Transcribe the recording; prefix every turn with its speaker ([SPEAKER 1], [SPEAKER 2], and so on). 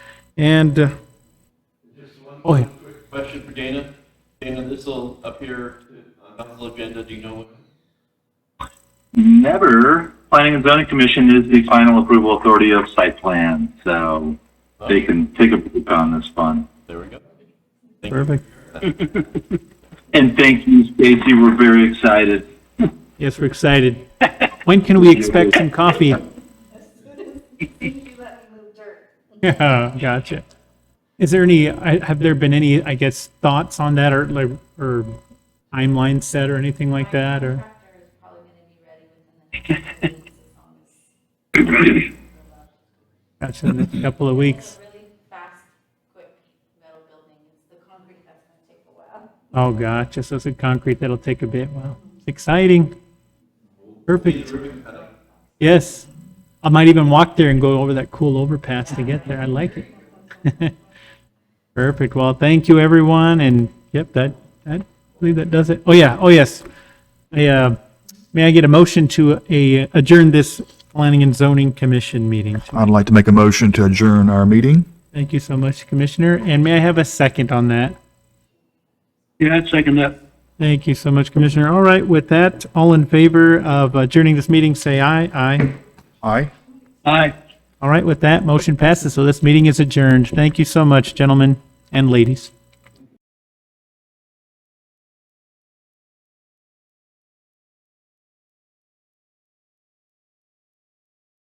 [SPEAKER 1] And, uh, oh, yeah.
[SPEAKER 2] Quick Question for Dana. Dana, this will appear uh, on council agenda, do you know? what-
[SPEAKER 3] Never. Planning and Zoning Commission is the final approval authority of site plan, so they can take a poop on this one.
[SPEAKER 2] There we go.
[SPEAKER 1] perfect.
[SPEAKER 3] And thank you, Stacy. We're very excited.
[SPEAKER 1] Yes, we're excited. When can we expect some coffee?
[SPEAKER 4] you let me move dirt.
[SPEAKER 1] Yeah, gotcha. Is there any, I- have there been any, I guess, thoughts on that or like, or timeline set or anything like that or?
[SPEAKER 4] Tractor is probably gonna be ready within the next few weeks as long as
[SPEAKER 1] Gotcha, in a couple of weeks.
[SPEAKER 4] really fast, quick metal building. It's the concrete that's gonna take a while.
[SPEAKER 1] Oh, gotcha. So it's a concrete that'll take a bit. Wow, it's exciting. Perfect. Yes. I might even walk there and go over that cool overpass to get there. I like it. Perfect. Well, thank you, everyone. And yep, that, I believe that does it. Oh, yeah. Oh, yes. I, uh, may I get a motion to uh, adjourn this Planning and Zoning Commission meeting?
[SPEAKER 5] I'd like to make a motion to adjourn our meeting.
[SPEAKER 1] Thank you so much, Commissioner. And may I have a second on that?
[SPEAKER 3] Yeah, I'd second that.
[SPEAKER 1] Thank you so much, Commissioner. All right, with that, all in favor of adjourning this meeting, say aye. Aye.
[SPEAKER 5] Aye.
[SPEAKER 3] Aye.
[SPEAKER 1] All right, with that, motion passes. So this meeting is adjourned. Thank you so much, gentlemen and ladies.